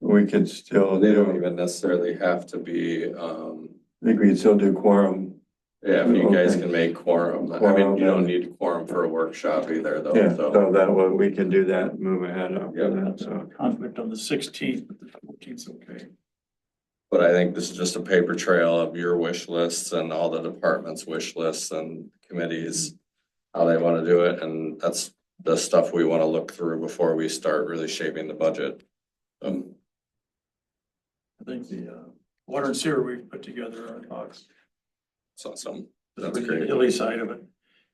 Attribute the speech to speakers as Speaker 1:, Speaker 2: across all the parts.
Speaker 1: we could still,
Speaker 2: They don't
Speaker 1: do-
Speaker 2: even necessarily have to be, um,
Speaker 1: I think we could still do quorum.
Speaker 2: yeah, if you guys
Speaker 1: Okay.
Speaker 2: can make quorum, I mean,
Speaker 1: Quorum,
Speaker 2: you don't
Speaker 1: yeah.
Speaker 2: need quorum for a workshop either
Speaker 1: Yeah,
Speaker 2: though, Oh, so.
Speaker 1: so that way we can do that, and move ahead after
Speaker 2: Yeah.
Speaker 1: that, so.
Speaker 3: conflict on the sixteenth, but the fourteenth's okay.
Speaker 2: But I think this is just a paper trail of your wish lists and all the departments' wish lists and committees. How they wanna do it, and that's the stuff we wanna look through before we start really shaping the budget. Um,
Speaker 3: I think the uh, water and sewer we've put together on Fox.
Speaker 2: so some,
Speaker 3: That's
Speaker 2: That's
Speaker 3: the
Speaker 2: great.
Speaker 3: hilly side of it.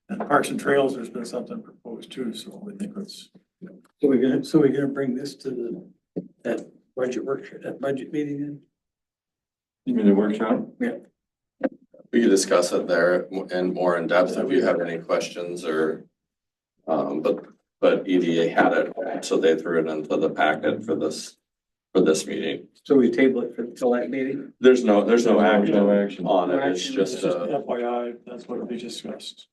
Speaker 3: And parks and trails, there's been something proposed too, so I think it's,
Speaker 4: So we're gonna, so we're gonna bring this to the, that budget workshop, that budget meeting then?
Speaker 1: You mean the workshop?
Speaker 2: we can discuss it there and more in depth if you have any questions or. Um, but, but EDA had it, so they threw it into the packet for this, for this meeting.
Speaker 4: So we table it for, till that meeting?
Speaker 2: There's no, there's no
Speaker 1: No
Speaker 2: action
Speaker 1: action.
Speaker 2: on it, it's just
Speaker 3: uh,
Speaker 2: a.
Speaker 3: FYI, that's what they discussed.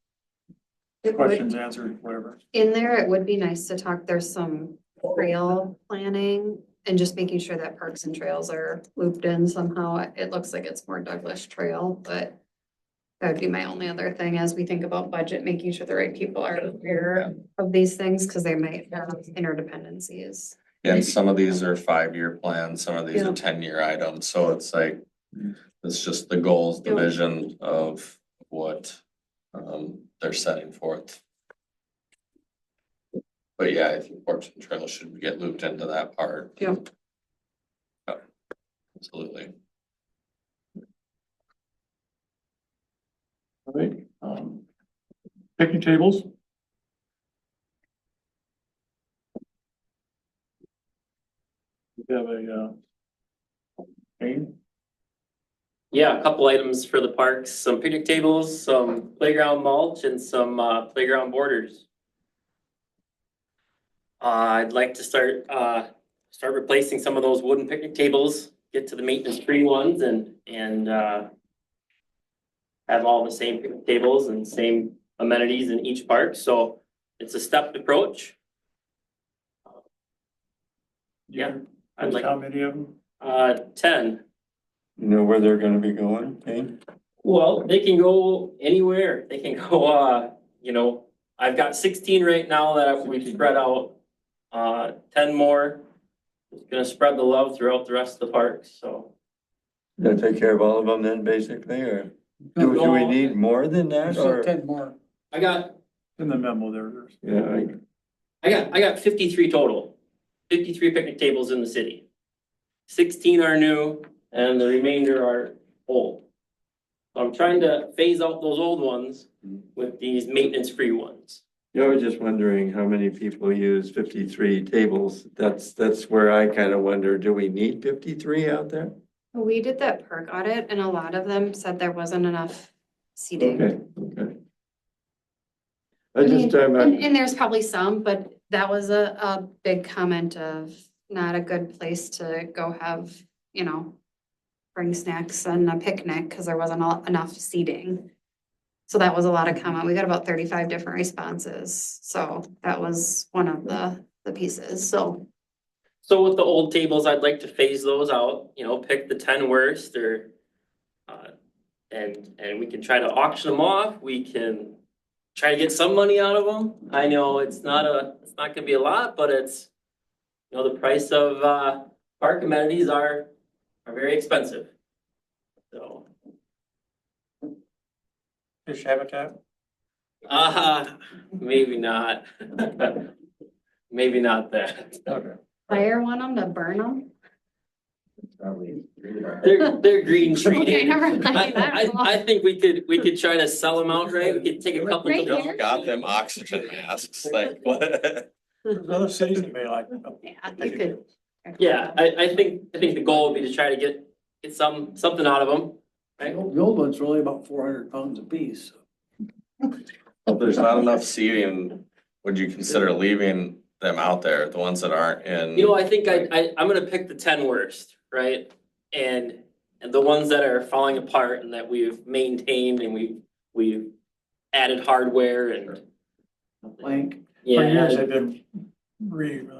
Speaker 5: It would,
Speaker 3: Questions answered, whatever.
Speaker 5: in there, it would be nice to talk, there's some trail planning and just making sure that parks and trails are looped in somehow. It- It looks like it's more Douglas Trail, but that would be my only other thing as we think about budget, making sure the right people are aware of these things because they might have interdependencies.
Speaker 2: And some of these are five-year plans, some of these
Speaker 5: Yeah. Mm.
Speaker 2: are ten-year items, so it's like, it's just the goals, the
Speaker 5: Yeah.
Speaker 2: vision of what um they're setting forth. But yeah, I think Parks and Trails should get looped into that part.
Speaker 5: Yeah.
Speaker 2: Yeah, Absolutely.
Speaker 3: All right, um, picnic tables? We have a, uh, Jane?
Speaker 6: Yeah, a couple items for the parks, some picnic tables, some playground mulch and some uh playground borders. Uh, I'd like to start uh start replacing some of those wooden picnic tables, get to the maintenance free ones and and uh. Have all the same picnic tables and same amenities in each park, so it's a stepped approach. Yeah, I'd like-
Speaker 3: How many of them?
Speaker 6: Uh, ten,
Speaker 1: You know where they're gonna be going, Kane?
Speaker 6: Well, they can go anywhere. They can go, uh, you know, I've got sixteen right now that we spread out. Uh, ten more. It's Gonna spread the love throughout the rest of the parks, so.
Speaker 1: Gonna take care of all of them then, basically, or do do we need more than that,
Speaker 4: So
Speaker 1: or?
Speaker 4: ten more.
Speaker 6: I got,
Speaker 3: In the memo there, there's.
Speaker 1: Yeah, I-
Speaker 6: I got, I got fifty-three total. Fifty-three picnic tables in the city. Sixteen are new and the remainder are old. So I'm trying to phase out those old ones with these maintenance-free ones.
Speaker 1: yeah, I was just wondering how many people use fifty-three tables, that's, that's where I kinda wonder, do we need fifty-three out there?
Speaker 5: We did that park audit and a lot of them said there wasn't enough seating.
Speaker 1: Okay, okay.
Speaker 5: I
Speaker 1: I just,
Speaker 5: mean,
Speaker 1: I'm,
Speaker 5: And,
Speaker 1: I'm-
Speaker 5: and there's probably some, but that was a, a big comment of not a good place to go have, you know, bring snacks and a picnic because there wasn't all- enough seating. So that was a lot of comment. We got about thirty-five different responses. So that was one of the, the pieces. So
Speaker 6: So with the old tables, I'd like to phase those out, you know, pick the ten worst or. uh, And, and we can try to auction them off, we can try to get some money out of them. I know it's not a, it's not gonna be a lot, but it's. You know, the price of uh park amenities are, are very expensive. So,
Speaker 3: Fish habitat?
Speaker 6: uh, maybe not. Maybe not that.
Speaker 3: Okay.
Speaker 5: fire one of them to burn them.
Speaker 6: They're, they're green treated.
Speaker 5: Okay, never mind.
Speaker 6: I, I, I think we could, we could try to sell them outright, we could take a couple.
Speaker 5: Right
Speaker 6: of-
Speaker 5: here?
Speaker 2: Got them oxygen masks, like what?
Speaker 3: There's other cities that may like. them.
Speaker 5: Yeah, you could.
Speaker 6: Yeah, I, I think, I think the goal would be to try to get, get some, something out of them,
Speaker 4: The
Speaker 6: right?
Speaker 4: old the old ones were only about four hundred pounds apiece.
Speaker 2: If there's not enough seating, would you consider leaving them out there, the ones that aren't in?
Speaker 6: You know, I think I, I, I'm gonna pick the ten worst, right? And, and the ones that are falling apart and that we've maintained and we, we've added hardware and.
Speaker 4: Plank.
Speaker 6: Yeah,
Speaker 3: For years,
Speaker 6: added-
Speaker 3: they've been re,